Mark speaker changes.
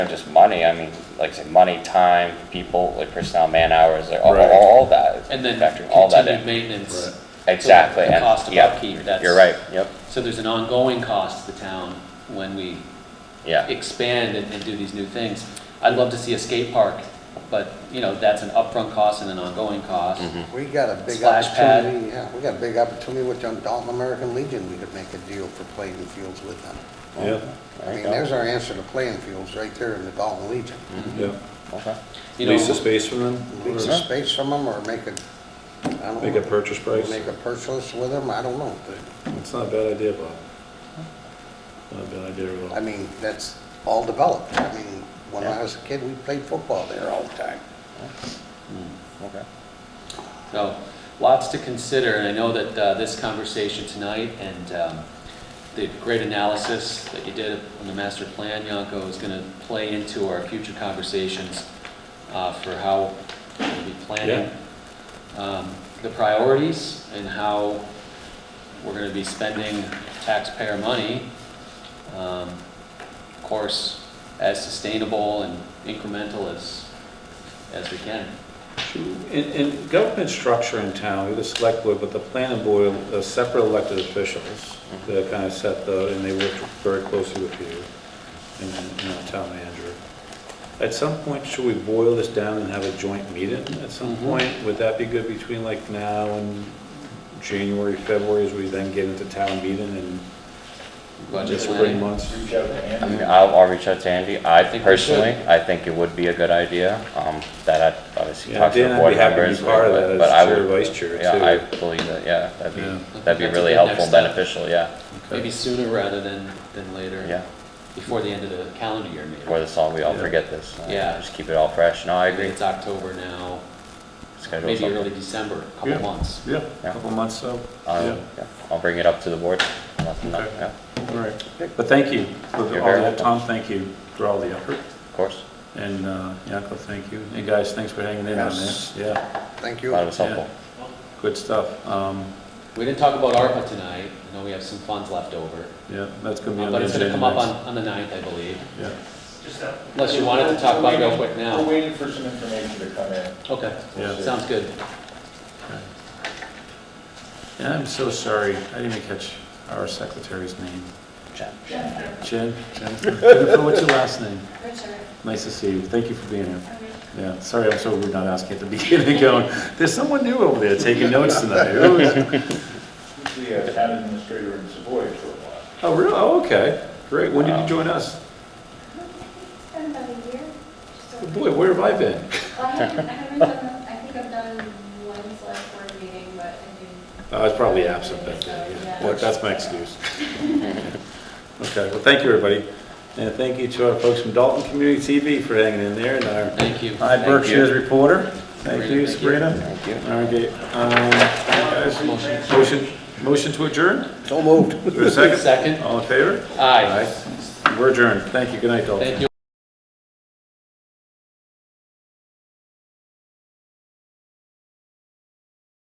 Speaker 1: just money, I mean, like I said, money, time, people, like personnel, man hours, like all,
Speaker 2: Right.
Speaker 1: all that.
Speaker 3: And then
Speaker 1: factoring all that
Speaker 3: continued
Speaker 1: in.
Speaker 3: maintenance.
Speaker 2: Right.
Speaker 1: Exactly,
Speaker 3: The
Speaker 1: and,
Speaker 3: cost of
Speaker 1: yeah,
Speaker 3: upkeep, that's.
Speaker 1: you're right, yep,
Speaker 3: So there's an ongoing cost to the town when we
Speaker 1: yeah,
Speaker 3: expand and, and do these new things. I'd love to see a skate park, but, you know, that's an upfront cost and an ongoing cost.
Speaker 4: We got a big
Speaker 3: Splash pad.
Speaker 4: opportunity, yeah, we got a big opportunity with the Dalton American Legion, we could make a deal for playing fields with them.
Speaker 2: Yeah,
Speaker 4: I mean, there's our answer to playing fields, right there in the Dalton Legion.
Speaker 2: yeah.
Speaker 1: okay,
Speaker 3: You know,
Speaker 2: Lease the space from
Speaker 3: Mm-hmm.
Speaker 2: them?
Speaker 4: Lease a space from them, or make a, I don't know.
Speaker 2: Make a purchase price?
Speaker 4: Make a purchase with them, I don't know, but,
Speaker 2: It's not a bad idea, Bob. Not a bad idea at all.
Speaker 4: I mean, that's all developed. I mean, when I was a kid, we played football there all the time.
Speaker 1: Hmm, okay.
Speaker 3: So lots to consider, and I know that uh, this conversation tonight and um, the great analysis that you did on the master plan, Yanko, is going to play into our future conversations uh, for how we'll be planning um, the priorities and how we're going to be spending taxpayer money. um, Of course, as sustainable and incremental as, as we can.
Speaker 2: In, in government structure in town, we have the select board, but the planning board are separate elected officials
Speaker 4: Mm-hmm.
Speaker 2: that kind of set the, and they work very closely with you and, and, you know, town manager. At some point, should we boil this down and have a joint meeting at some
Speaker 3: Mhm.
Speaker 2: point? Would that be good between like now and January, February, as we then get into town meeting and
Speaker 3: Budget
Speaker 2: the
Speaker 3: planning.
Speaker 2: spring months?
Speaker 5: Reach out to
Speaker 1: I
Speaker 5: Andy.
Speaker 1: mean, I'll, I'll reach out to Andy, I
Speaker 3: think we
Speaker 1: personally, I think it would be a good idea, um, that I'd obviously
Speaker 2: Yeah,
Speaker 1: talk to the
Speaker 2: Dan, I'd
Speaker 1: board
Speaker 2: be happy to
Speaker 1: members.
Speaker 2: be part of
Speaker 1: but-
Speaker 2: that
Speaker 1: but I
Speaker 2: as chair,
Speaker 1: would-
Speaker 2: vice chair too.
Speaker 1: Yeah, I believe that, yeah, that'd
Speaker 2: Yeah.
Speaker 1: be, that'd be
Speaker 3: That's a
Speaker 1: really
Speaker 3: good
Speaker 1: helpful, and
Speaker 3: next step.
Speaker 1: beneficial, yeah,
Speaker 2: Okay.
Speaker 3: Maybe sooner rather than, than later.
Speaker 1: yeah.
Speaker 3: Before the end of the calendar year, maybe.
Speaker 1: Before this all, we all
Speaker 2: Yeah.
Speaker 1: forget this. uh,
Speaker 3: Yeah.
Speaker 1: Just keep it all fresh, no, I agree.
Speaker 3: It's October now,
Speaker 1: Schedule
Speaker 3: maybe
Speaker 1: something.
Speaker 3: early December, a couple
Speaker 2: Yeah.
Speaker 3: months.
Speaker 2: Yeah,
Speaker 1: Yeah.
Speaker 2: couple months, so,
Speaker 1: Um, yeah, I'll bring it up to the board. Let them know,
Speaker 2: Okay.
Speaker 1: yeah,
Speaker 2: all right. But thank you, for all
Speaker 1: You're very
Speaker 2: that, Tom, thank you for all the effort,
Speaker 1: Of course,
Speaker 2: and, uh, Yanko, thank you, and guys, thanks for hanging in on this,
Speaker 4: Yes.
Speaker 2: yeah,
Speaker 4: Thank
Speaker 1: a
Speaker 4: you.
Speaker 1: lot of it's helpful.
Speaker 2: good stuff, um,
Speaker 3: We didn't talk about ARPA tonight, I know we have some funds left over, uh,
Speaker 2: yeah, that's gonna be on the
Speaker 3: but it's gonna
Speaker 2: agenda
Speaker 3: come up on,
Speaker 2: next.
Speaker 3: on the ninth, I believe.
Speaker 2: Yeah,
Speaker 5: Just that-
Speaker 3: Unless you wanted to talk about it real quick now.
Speaker 5: We're waiting for some information to come in.
Speaker 3: Okay,
Speaker 2: Yeah.
Speaker 3: sounds good.
Speaker 2: okay. And I'm so sorry, I didn't even catch our secretary's name,
Speaker 1: Jen.
Speaker 2: Jen, Jennifer, Jennifer, what's your last name?
Speaker 6: Richard,
Speaker 2: Nice to see you, thank you for being here.
Speaker 6: I mean,
Speaker 2: Yeah, sorry, I'm so rude not asking at the beginning, going, there's someone new over there taking notes tonight. Who is-
Speaker 5: The uh, town administrator in Savoy for a while. Um,
Speaker 2: Oh, really? Oh, okay, great. When did you join us?
Speaker 6: it's been about a year. just over-
Speaker 2: Oh, Boy, where have I been?
Speaker 6: Well, I haven't, I haven't done, I think I've done one select board meeting, but I think.
Speaker 2: I was probably absent that day. yeah. Look, That's my excuse. Okay, well, thank you, everybody. And thank you to our folks from Dalton Community TV for hanging in there and our
Speaker 3: Thank you.
Speaker 2: High Berkshire's reporter. Thank
Speaker 3: Sabrina,
Speaker 2: you,
Speaker 3: thank you.
Speaker 2: Sabrina.
Speaker 1: Thank you.
Speaker 2: All right, um,
Speaker 3: Motion.
Speaker 2: guys, motion, motion to adjourn?
Speaker 4: So moved.
Speaker 2: Is there a second?
Speaker 3: Second.
Speaker 2: All in favor?
Speaker 3: Aye.
Speaker 2: Aye. We're adjourned. Thank you. Good night, Dalton.
Speaker 3: Thank you.